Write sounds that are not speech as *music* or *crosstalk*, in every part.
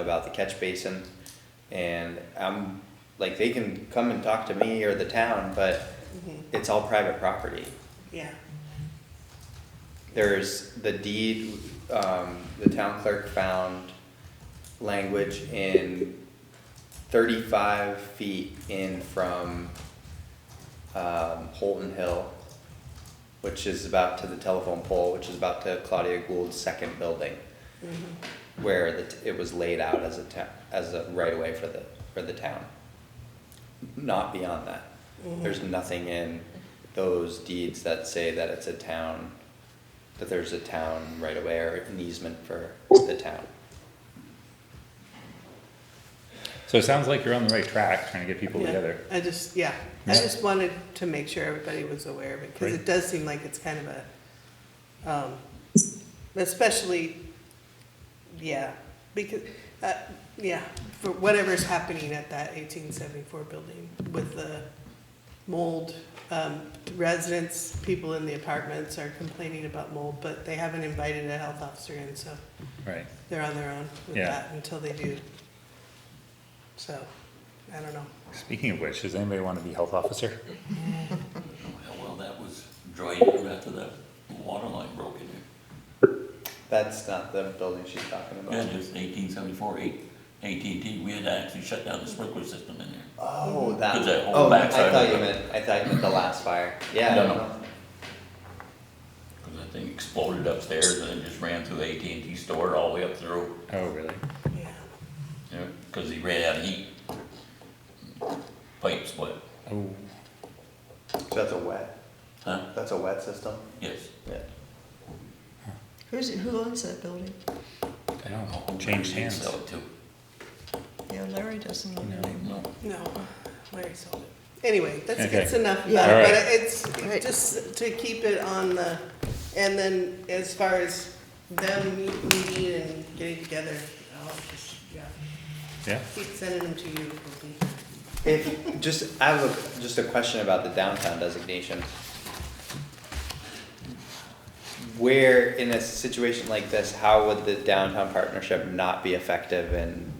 about the catch basin, and I'm, like, they can come and talk to me or the town, but it's all private property. Yeah, There's the deed, um, the town clerk found language in thirty-five feet in from, um, Holton Hill, which is about to the telephone pole, which is about to Claudia Gould's second building. Where the, t- it was laid out as a town, as a right away for the, for the town. Not beyond that. There's nothing in those deeds that say that it's a town, that there's a town right away or an easement for the town. So it sounds like you're on the right track, trying to get people yeah. together. I just, yeah, I Yeah. just wanted to make sure everybody was aware of it, because it Right. does seem like it's kind of a, um, especially, yeah, because, uh, yeah, for whatever's happening at that eighteen seventy-four building with the mold, um, residents, people in the apartments are complaining about mold, but they haven't invited a health officer in, so Right. they're on their own with Yeah. that until they do. So, I don't know. Speaking of which, does anybody want to be health officer? Well, that was drained after that water line broke in there. That's not the building she's talking Yeah, about. it was eighteen seventy-four, eight, AT&T, we had to actually shut down the sprinkler system in there. Oh, that, Because that whole oh, I backside thought of you it. meant, I thought you meant the last fire. Yeah. No, no, no. no. Cause that thing exploded upstairs and then just ran through the AT&T store all the way up through, Oh, really? Yeah, you know, cause he ran out of heat. Pipe split, Oh, So that's a wet, huh? that's a wet system? Yes. Yeah. Who's, who owns that building? I don't know. Oh, Changed He didn't hands. Sell it too. Yeah, Larry doesn't own it No. anymore. No, no, Larry sold it. Anyway, that's, Okay. that's enough about Yeah. All it, but right. it's it's just to keep it on the, and then as far as them meet- meeting and getting together, I'll just, yeah, Yeah. keep sending them to you. Ruby. If, just, I have a, just a question about the downtown designation. Where, in a situation like this, how would the downtown partnership not be effective in,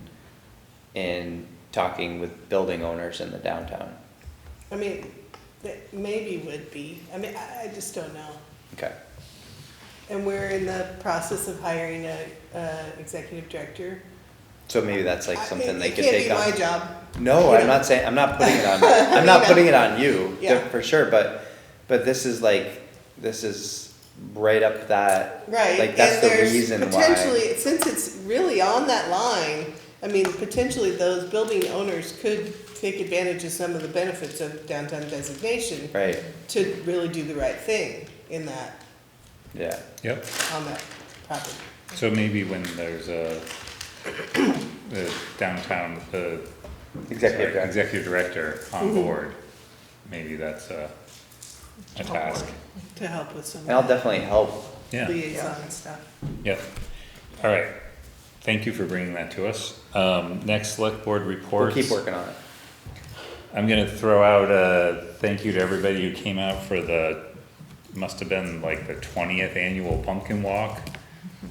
in talking with building owners in the downtown? I mean, that maybe would be, I mean, I, I just don't know. Okay, And we're in the process of hiring a, uh, executive director. so maybe that's like I- something they it could take on. can't be my job, No, You I'm know? not saying, I'm not putting *laughs* it on, I'm not putting it on you, Yeah. for sure, but, but this is like, this is right up that, Right. like, that's and the there's reason why. Potentially, since it's really on that line, I mean, potentially those building owners could take advantage of some of the benefits of downtown designation Right, to really do the right thing in that, yeah, Yep. on that property. So maybe when there's a, the downtown, the. Executive sorry, director. Executive director on board, maybe that's a, a task. To help with some and I'll of definitely help, the Yeah, liaison stuff. yep. All right. Thank you for bringing that to us. Um, next select board we'll reports. keep working on it. I'm gonna throw out a thank you to everybody who came out for the, must have been like the twentieth annual pumpkin walk.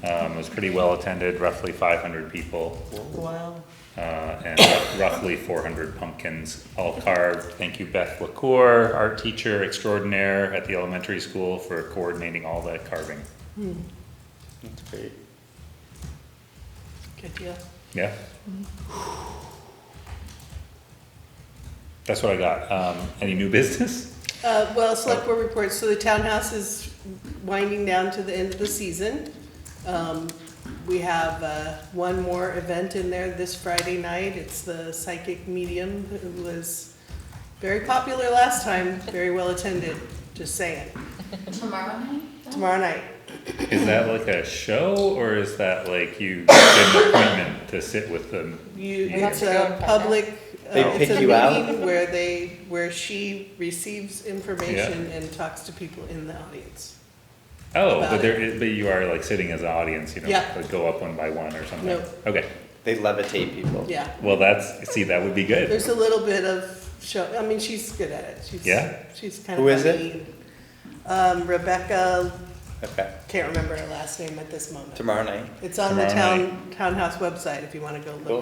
Um, it was pretty well attended, roughly five hundred people, Wow. uh, and roughly four hundred pumpkins all carved. Thank you Beth LaCour, art teacher extraordinaire at the elementary school for coordinating all that carving. That's great. Good deal. Yeah. That's what I got. Um, any new business? Uh, well, select board reports, so the townhouse is winding down to the end of the season. Um, we have, uh, one more event in there this Friday night, it's the psychic medium, who was very popular last time, very well attended, just saying, Tomorrow night? tomorrow night. Is that like a show, or is that like you get an appointment to sit with them? You, Yeah. it's a public, uh, They it's pick a you out? meeting where they, where she receives information and talks to people in the audience. Oh, About but there, is- but you are like sitting as an audience, you know, Yeah. like go up one by one or something. Nope. Okay, They levitate people. Yeah, well, that's, see, that would be good. There's a little bit of show, I mean, she's good at it. She's, Yeah? She's kind of Who is it? funny. Um, Rebecca Okay, Can't remember her last name at this moment. tomorrow night? It's on the Tomorrow town, townhouse website if you wanna go look Cool.